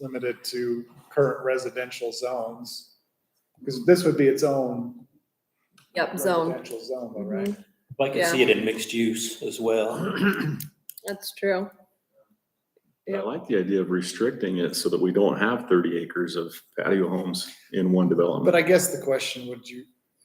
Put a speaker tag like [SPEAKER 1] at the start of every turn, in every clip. [SPEAKER 1] limited to current residential zones. Because this would be its own.
[SPEAKER 2] Yep, zone. Mm-hmm.
[SPEAKER 1] Residential zone, though, right?
[SPEAKER 3] I can see it in mixed use as well.
[SPEAKER 2] That's true.
[SPEAKER 4] I like the idea of restricting it so that we don't have thirty acres of patio homes in one
[SPEAKER 1] But
[SPEAKER 4] development.
[SPEAKER 1] I guess the question, would you?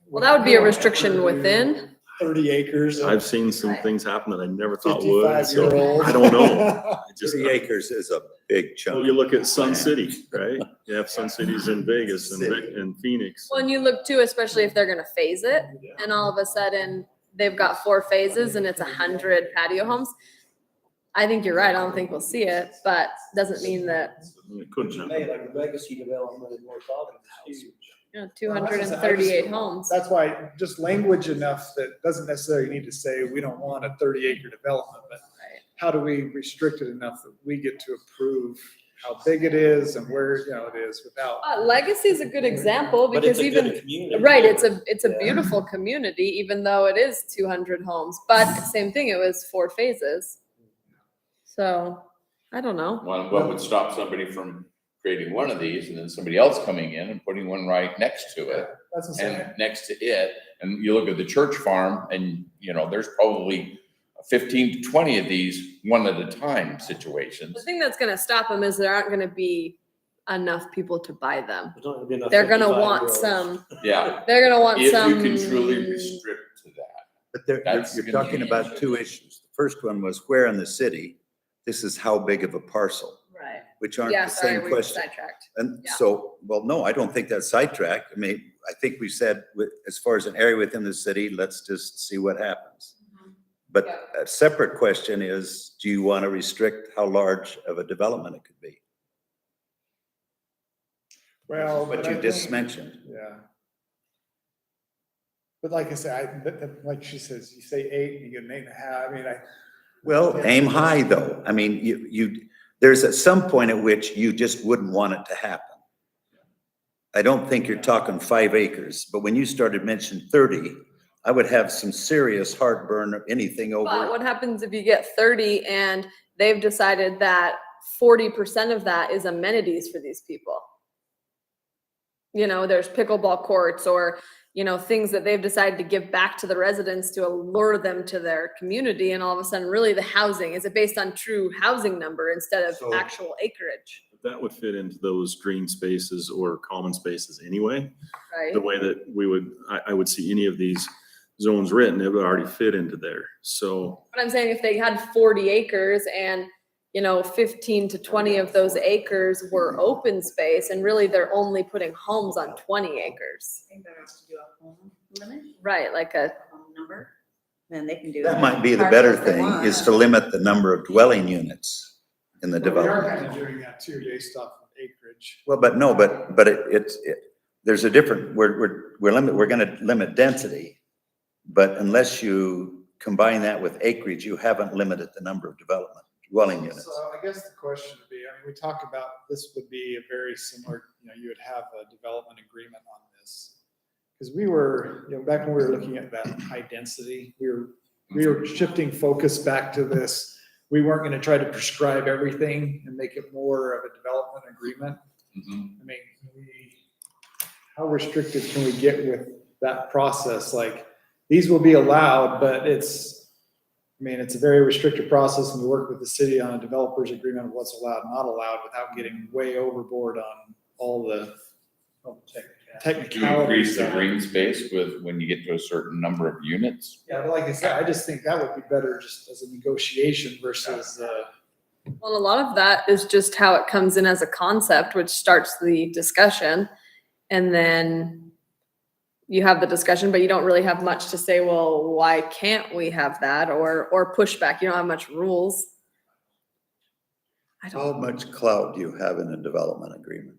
[SPEAKER 2] Well, that would be a restriction within.
[SPEAKER 1] Thirty acres of
[SPEAKER 4] I've seen some things happen that I never thought would,
[SPEAKER 1] fifty-five year
[SPEAKER 4] so
[SPEAKER 1] old.
[SPEAKER 4] I don't know. I just-
[SPEAKER 5] Thirty acres is a big
[SPEAKER 4] Well,
[SPEAKER 5] chunk.
[SPEAKER 4] you look at Sun City, right? You have Sun Cities in Vegas and, Ve- and Phoenix.
[SPEAKER 2] When you look too, especially if they're gonna phase it and all of a sudden they've got four phases and it's a hundred patio homes. I think you're right. I don't think we'll see it, but doesn't mean that,
[SPEAKER 4] It couldn't happen.
[SPEAKER 6] Hey, like the legacy development in North Ogden is huge.
[SPEAKER 2] you know, two hundred and thirty-eight homes.
[SPEAKER 1] That's why just language enough that doesn't necessarily need to say, we don't want a thirty acre development, but
[SPEAKER 2] Right.
[SPEAKER 1] how do we restrict it enough that we get to approve how big it is and where, you know, it is without.
[SPEAKER 2] Uh, Legacy is a good example
[SPEAKER 3] But
[SPEAKER 2] because
[SPEAKER 3] it's a
[SPEAKER 2] even
[SPEAKER 3] good community.
[SPEAKER 2] Right, it's a, it's a
[SPEAKER 6] Yeah.
[SPEAKER 2] beautiful community, even though it is two hundred homes, but same thing, it was four phases. So, I don't know,
[SPEAKER 7] What, what would stop somebody from creating one of these and then somebody else coming in and putting one right next to it
[SPEAKER 1] That's insane.
[SPEAKER 7] and next to it? And you look at the church farm and, you know, there's probably fifteen to twenty of these one at a time
[SPEAKER 2] the
[SPEAKER 7] situations.
[SPEAKER 2] thing that's gonna stop them is there aren't gonna be enough people to buy them.
[SPEAKER 3] There's not gonna be enough
[SPEAKER 2] They're gonna
[SPEAKER 3] 55
[SPEAKER 2] want
[SPEAKER 3] -year-olds.
[SPEAKER 2] some,
[SPEAKER 7] Yeah,
[SPEAKER 2] they're gonna want
[SPEAKER 7] if
[SPEAKER 2] some.
[SPEAKER 7] you can truly restrict to that.
[SPEAKER 5] But there, you're-
[SPEAKER 7] That's
[SPEAKER 5] you're
[SPEAKER 7] gonna
[SPEAKER 5] talking
[SPEAKER 7] be-
[SPEAKER 5] about two issues. The first one was where in the city? This is how big of a parcel,
[SPEAKER 2] Right,
[SPEAKER 5] which aren't
[SPEAKER 2] yeah,
[SPEAKER 5] the
[SPEAKER 2] sorry,
[SPEAKER 5] same
[SPEAKER 2] we were
[SPEAKER 5] question.
[SPEAKER 2] sidetracked.
[SPEAKER 5] And
[SPEAKER 2] Yeah.
[SPEAKER 5] so, well, no, I don't think that's sidetracked. I mean, I think we said, with- as far as an area within the city, let's just see what happens. But
[SPEAKER 2] Yeah.
[SPEAKER 5] a separate question is, do you want to restrict how large of a development it could be?
[SPEAKER 1] Well. but
[SPEAKER 5] What
[SPEAKER 1] I
[SPEAKER 5] you just
[SPEAKER 1] think-
[SPEAKER 5] mentioned.
[SPEAKER 1] Yeah. But like I said, I, but, but like she says, you say eight, you get an eight and a half, I mean, I,
[SPEAKER 5] Well,
[SPEAKER 1] Yeah.
[SPEAKER 5] aim high, though. I mean, you, you, there's at some point at which you just wouldn't want it to happen. I don't think you're talking five acres, but when you started mentioning thirty, I would have some serious heartburn of anything
[SPEAKER 2] But
[SPEAKER 5] over.
[SPEAKER 2] what happens if you get thirty and they've decided that forty percent of that is amenities for these people? You know, there's pickleball courts or, you know, things that they've decided to give back to the residents to allure them to their community and all of a sudden really the housing, is it based on true housing number instead of
[SPEAKER 5] So-
[SPEAKER 2] actual acreage,
[SPEAKER 4] That would fit into those green spaces or common spaces anyway. The
[SPEAKER 2] right?
[SPEAKER 4] way that we would, I, I would see any of these zones written, it would already fit into there. So
[SPEAKER 2] But I'm saying if they had forty acres and, you know, fifteen to twenty of those acres were open space and really they're only putting homes on twenty acres.
[SPEAKER 8] I think that has to do a home limit,
[SPEAKER 2] Right, like a,
[SPEAKER 8] a home number, then they can do.
[SPEAKER 5] That
[SPEAKER 8] it.
[SPEAKER 5] might be the
[SPEAKER 8] Park
[SPEAKER 5] better
[SPEAKER 8] if they
[SPEAKER 5] thing,
[SPEAKER 8] want.
[SPEAKER 5] is to limit the number of dwelling units in the
[SPEAKER 1] but we are
[SPEAKER 5] development.
[SPEAKER 1] kind of doing that too, based off of acreage.
[SPEAKER 5] Well, but no, but, but it, it's, it, there's a different, we're, we're, we're limit, we're gonna limit density. But unless you combine that with acreage, you haven't limited the number of development dwelling units.
[SPEAKER 1] So I guess the question would be, I mean, we talk about, this would be a very similar, you know, you would have a development agreement on this. Because we were, you know, back when we were looking at that high density, we were,
[SPEAKER 7] Mm-hmm.
[SPEAKER 1] we were shifting focus back to this. We weren't gonna try to prescribe everything and make it more of a development agreement.
[SPEAKER 7] Mhm.
[SPEAKER 1] I mean, we, how restricted can we get with that process? Like, these will be allowed, but it's, I mean, it's a very restricted process and we work with the city on a developer's agreement of what's allowed, and not allowed, without getting way overboard on all the
[SPEAKER 7] Do you increase
[SPEAKER 1] technicalities.
[SPEAKER 7] the green space with, when you get to a certain number of units?
[SPEAKER 1] Yeah, but like I said, I just think that would be better just as a negotiation versus, uh,
[SPEAKER 2] well, a lot of that is just how it comes in as a concept, which starts the discussion. And then you have the discussion, but you don't really have much to say, well, why can't we have that? Or, or pushback, you don't have much rules. I
[SPEAKER 5] How
[SPEAKER 2] don't,
[SPEAKER 5] much clout do you have in a development agreement?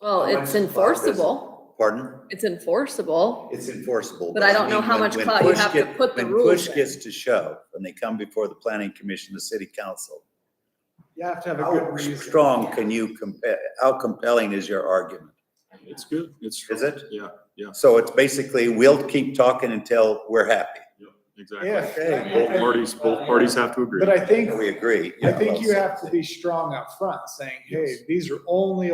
[SPEAKER 2] well,
[SPEAKER 5] how
[SPEAKER 2] it's
[SPEAKER 5] much clout is it?
[SPEAKER 2] enforceable,
[SPEAKER 5] Pardon?
[SPEAKER 2] it's enforceable.
[SPEAKER 5] It's enforceable.
[SPEAKER 2] But I don't know
[SPEAKER 5] mean,
[SPEAKER 2] how
[SPEAKER 5] when-
[SPEAKER 2] much
[SPEAKER 5] when
[SPEAKER 2] clout you
[SPEAKER 5] push
[SPEAKER 2] have to
[SPEAKER 5] get-
[SPEAKER 2] put the
[SPEAKER 5] When push
[SPEAKER 2] rules in.
[SPEAKER 5] gets to shove, when they come before the planning commission, the city council,
[SPEAKER 1] you have to have a good
[SPEAKER 5] how
[SPEAKER 1] reason.
[SPEAKER 5] strong can you compare, how compelling is your argument?
[SPEAKER 4] it's good. It's.
[SPEAKER 5] Is it?
[SPEAKER 4] Yeah,
[SPEAKER 5] So it's basically, we'll keep talking until we're happy.
[SPEAKER 4] yeah. exactly.
[SPEAKER 1] If,
[SPEAKER 4] Both parties, both parties have to agree.
[SPEAKER 1] but I think,
[SPEAKER 5] We agree.
[SPEAKER 1] I
[SPEAKER 5] yeah,
[SPEAKER 1] think
[SPEAKER 5] well
[SPEAKER 1] you
[SPEAKER 5] said.
[SPEAKER 1] have to be strong up front, saying, hey,
[SPEAKER 4] Yes.
[SPEAKER 1] these are only